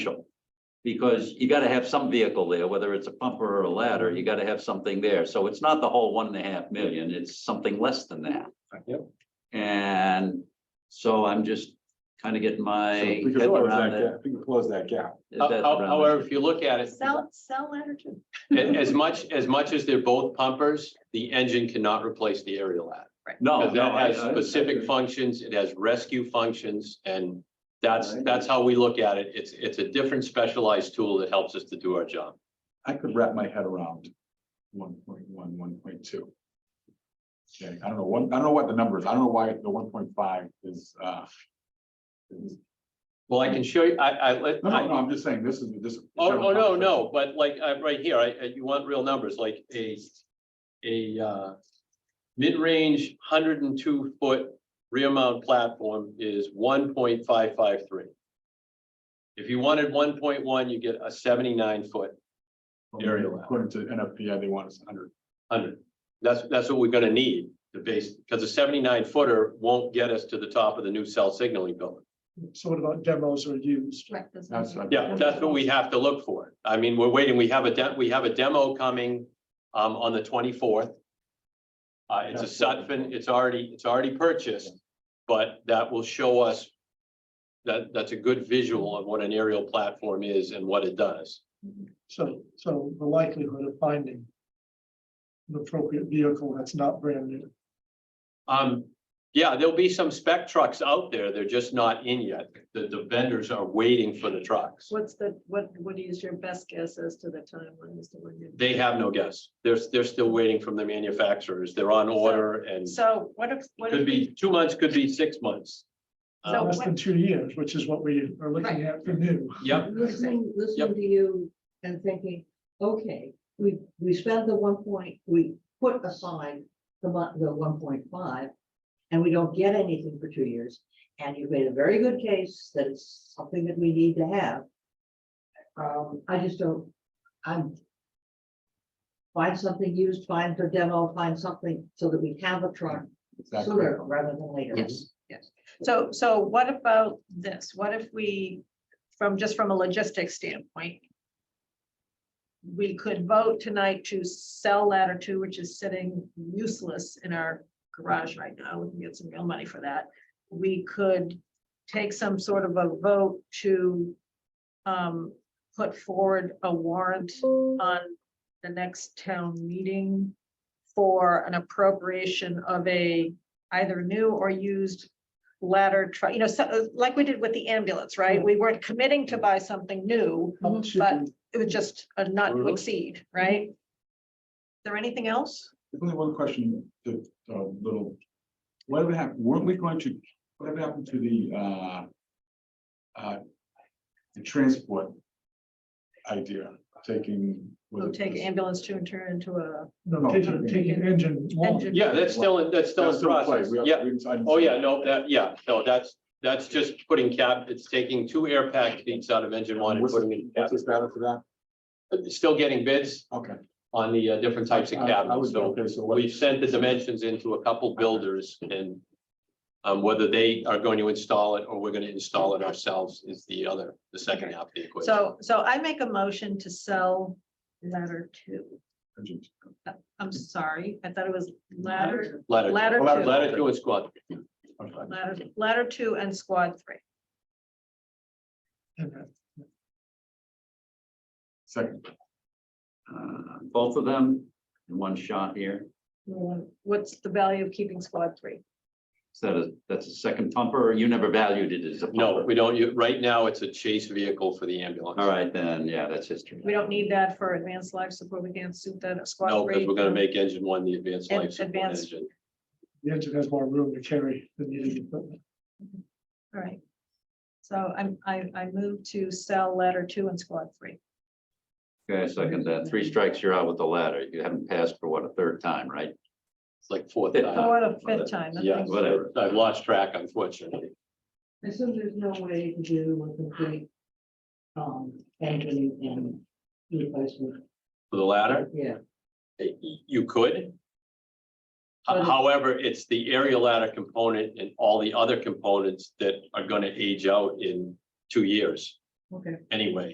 essential. Because you gotta have some vehicle there, whether it's a pumper or a ladder, you gotta have something there. So it's not the whole one and a half million, it's something less than that. Yep. And so I'm just kind of getting my So if we head could close around that that. gap, if we could close that gap. if that's How- around However, it. if you look at it, Sell, sell ladder too. a- as much, as much as they're both pumpers, the engine cannot replace the aerial ladder. No, Because no, that I- has I- specific functions, it has rescue functions, and that's, that's how we look at it. It's, it's a different specialized tool that helps us to do our job. I could wrap my head around one point one, one point two. Okay, I don't know, one, I don't know what the number is. I don't know why the one point five is, uh. is- Well, I can show you, I, I, let- No, no, I- no, I'm just saying, this is, this. oh, oh, no, no, but like, i right here, I, I- you want real numbers, like a, a, uh, mid-range hundred and two foot rear mount platform is one point five five three. If you wanted one point one, you get a seventy-nine foot Aerial. According to NFPA, they want us under, hundred. That's, that's what we're gonna need to base, because a seventy-nine footer won't get us to the top of the new cell signaling building. So what about demos or used? Right, those that's. numbers. Yeah, that's what we have to look for. I mean, we're waiting, we have a, de- we have a demo coming um on the twenty-fourth. Uh, it's a Sutphen, it's already, it's already purchased, but that will show us that, that's a good visual of what an aerial platform is and what it does. So, so the likelihood of finding an appropriate vehicle that's not brand new. Um, yeah, there'll be some spec trucks out there. They're just not in yet. The, the vendors are waiting for the trucks. What's the, what, what is your best guess as to the timeline, Mr. Lincoln? They have no guess. They're, they're still waiting from the manufacturers. They're on order and So what if, what could if, be uh, two months, could be six months. So Less what- than two years, which is what we are Right. looking at for new. Yep, listening, listening to you and thinking, okay, we, we spent the one point, we put aside the mon- the one point five. And we don't get anything for two years, and you've made a very good case that it's something that we need to have. Um, I just don't, I'm. Find something used, find for demo, find something so that we have a truck Exactly. sooner rather than later. Yes. so, so what about this? What if we, from, just from a logistics standpoint? We could vote tonight to sell ladder two, which is sitting useless in our garage right now. We can get some real money for that. We could take some sort of a vote to um, put forward a warrant on the next town meeting for an appropriation of a either new or used ladder truck, you know, so, uh, like we did with the ambulance, right? We weren't committing to buy something new. How much should But- we- It was just a not to Mhm. exceed, right? Is there anything else? There's only one question, the, uh little, whatever happened, weren't we going to, whatever happened to the, uh, uh, the transport idea, taking. was We'll it take this- ambulance two and turn it into a, No, No, taking- taking, taking engine one. Engine. Yeah, that's still, in that's still That's in still in play. process. We have- Yeah. we decided- Oh, yeah, no, that, yeah, no, that's, that's just putting cap, it's taking two air pack seats out of engine one and What's putting it in the- cap. what's the status of that? Still getting bids Okay. on the uh, different types of I- I cabins, was- so Okay, so what? we've sent the dimensions into a couple builders and um, whether they are going to install it or we're gonna install it ourselves is the other, the second half of the equation. so, so I make a motion to sell ladder two. I'm sorry, I thought it was ladder, Ladder, ladder Ladder- two, ladder two and squad. Okay. ladder, ladder two and squad three. And that- Second, Uh, Both of them in one shot here. What's the value of keeping squad three? Is that a, that's a second pumper or you never valued it as a No, pumper? we don't, you, right now, it's a chase vehicle for the ambulance. All right, then, yeah, that's history. We don't need that for advanced life support. We can't suit that at squad No, three. because we're gonna make engine one the advanced And life support advanced- engine. The engine has more room to carry than the engine equipment. All right. So I'm, I, I move to sell ladder two and squad three. Okay, I second that. Three strikes, you're out with the ladder. You haven't passed for what, a third time, right? It's like fourth Yeah. time. Oh, what a fifth time. that Uh, Yeah, thing's- whatever. whatever. I've lost track unfortunately. And so there's no way to do a complete. Um, engine and replacement, For the latter, yeah, y- you could. But- However, it's the aerial ladder component and all the other components that are gonna age out in two years. Okay. anyway.